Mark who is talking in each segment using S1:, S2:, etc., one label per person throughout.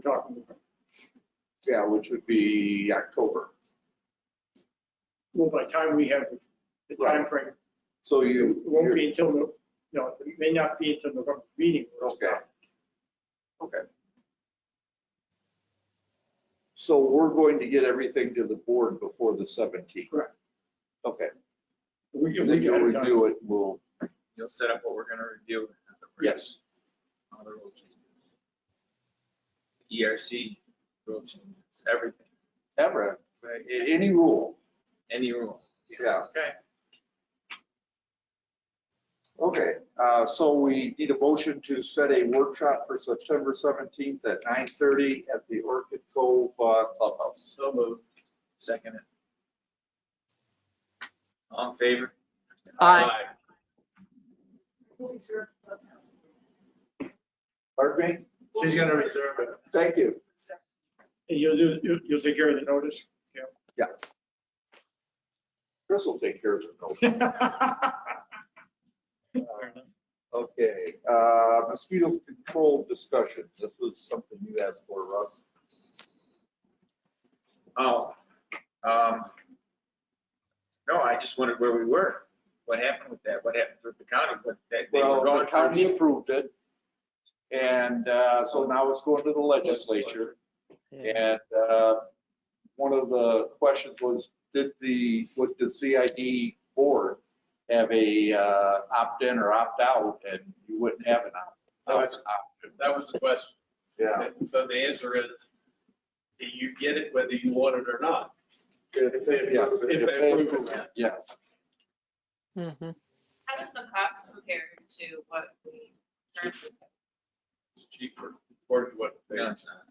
S1: talking about.
S2: Yeah, which would be October.
S1: Well, by the time we have the
S2: Right.
S1: timeframe, it
S2: So you.
S1: won't be until, no, no, it may not be until November meeting.
S2: Okay. Okay. So we're going to get everything to the board before the 17th?
S1: Correct.
S2: Okay,
S1: We can, we
S2: then
S1: can
S2: you'll
S1: have it done.
S2: review it, we'll,
S3: You'll set up what we're gonna review. at the first
S2: yes,
S3: Other rule changes. ERC rule changes, everything,
S2: ever, any rule,
S3: any rule.
S2: yeah.
S3: Okay.
S2: Okay, uh, so we need a motion to set a workshop for September 17th at 9:30 at the Orchid Cove uh, Clubhouse.
S3: So moved. Second it. All in favor?
S4: Aye.
S2: Pardon me?
S3: She's gonna reserve it.
S2: Thank you.
S1: And you'll do, you'll, you'll take care of the notice.
S2: Chris will take care of it. no. Okay, uh, mosquito control discussion. This was something you asked for, Russ.
S3: Oh, um, no, I just wondered where we were. What happened with that? What happened with the county? What, that they were
S2: Well, the
S3: going
S2: county
S3: through?
S2: approved it. And uh, so now it's going to the legislature. And uh, one of the questions was, did the, would the CID board have a uh, opt-in or opt-out? And you wouldn't have an
S5: No,
S2: opt-
S5: it's-
S2: opt-out.
S5: That was the question.
S2: Yeah.
S5: So the answer is, you get it whether you want it or not.
S2: If they
S5: approve it.
S2: Yes.
S4: Mhm.
S6: How does the cost compare to what we currently?
S5: It's cheaper, according to what they.
S3: No, it's not.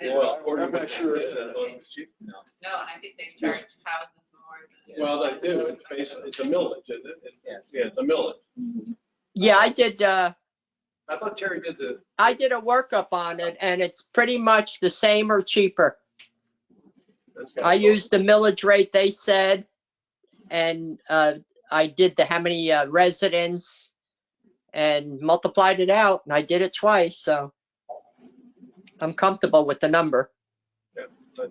S6: I don't
S5: Well,
S6: know.
S5: according to
S2: I'm not
S5: what they
S2: sure.
S5: did, that's what it's cheaper.
S3: No.
S6: No, and I think they charge houses more than.
S5: Well, they do, it's basically, it's a millage, isn't it? It's- Yeah, it's a millage.
S4: Yeah, I did, uh,
S5: I thought Terry did the,
S4: I did a workup on it and it's pretty much the same or cheaper.
S5: that's-
S4: I used the millage rate they said. And, uh, I did the, how many uh, residents and multiplied it out and I did it twice, so. I'm comfortable with the number.
S5: Yeah,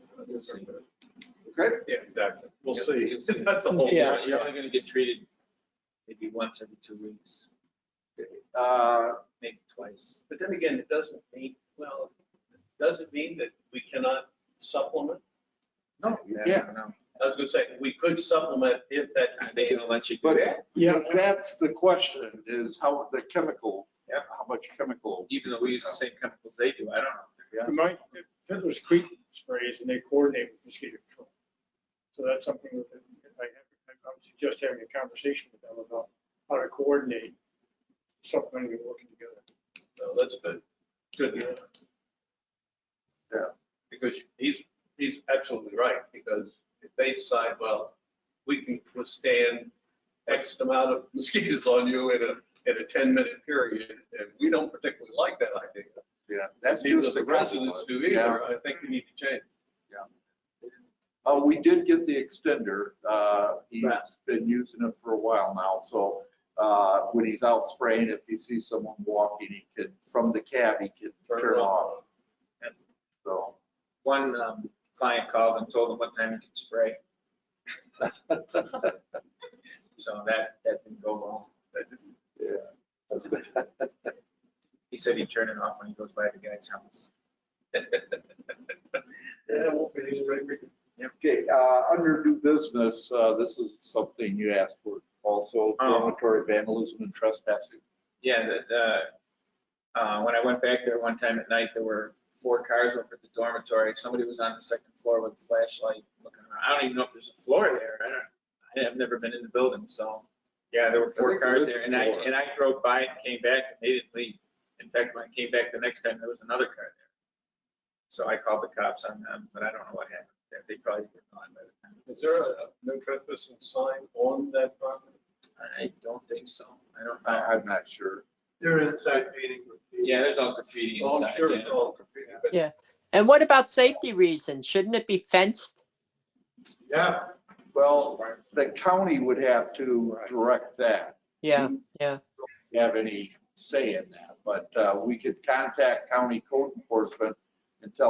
S2: Okay.
S5: exactly. We'll
S3: Yes,
S5: see.
S3: you'll see.
S5: That's the whole.
S4: Yeah.
S3: You're only gonna get treated maybe once every two weeks,
S2: Uh,
S3: maybe twice.
S5: But then again, it doesn't mean, well, it doesn't mean that we cannot supplement.
S3: No,
S2: Yeah.
S3: No,
S5: I was gonna say, we could supplement if that.
S3: I think it'll let you do
S2: But
S3: that,
S1: Yeah.
S2: that's the question, is how, the chemical,
S3: Yeah.
S2: how much chemical.
S3: even though we use the same chemicals they do, I don't know.
S1: Mike, Fiddler's Creek sprays and they coordinate with mosquito control. So that's something that I, I would suggest having a conversation with them about how to coordinate something and working together.
S5: So that's good. Good.
S2: Yeah.
S5: Because he's, he's absolutely right, because if they decide, well, we can withstand X amount of mosquitoes on you in a, in a ten minute period, and we don't particularly like that idea.
S2: Yeah, that's
S5: Neither
S2: just
S5: the residents do either, I think we need to change.
S2: Uh, we did get the extender, uh, he's
S5: Right.
S2: been using it for a while now, so, uh, when he's out spraying, if he sees someone walking, he can, from the cab, he can turn it off, so.
S3: One um, client called and told him what time he could spray, so that, that didn't go well. That didn't- He said he'd turn it off when he goes by the guy's house.
S5: Yeah, it won't be easy, right?
S2: Okay, uh, under new business, uh, this is something you asked for, also dormitory vandalism and trespassing.
S3: Yeah, the- the, uh, when I went back there one time at night, there were four cars over at the dormitory. Somebody was on the second floor with a flashlight looking around. I don't even know if there's a floor there. I don't, I have never been in the building, so. Yeah, there were
S2: I
S3: four
S2: think there
S3: cars
S2: is a
S3: there and I,
S2: floor.
S3: and I drove by and came back and they didn't leave. In fact, when I came back the next time, there was another car there. So I called the cops on them, but I don't know what happened. there. They probably were gone by the time.
S5: Is there a no trespassing sign on that property?
S3: I don't think so. I don't,
S2: I,
S3: know.
S2: I'm not sure.
S5: They're inside meeting.
S3: yeah, there's all graffiti
S5: Oh,
S3: inside.
S5: I'm sure
S3: yeah.
S5: it's all graffiti, but
S4: And what about safety reasons? Shouldn't it be fenced?
S5: yeah.
S2: Well, the county would have to direct that,
S4: Yeah,
S2: have any say in that, but uh, we could contact county code enforcement until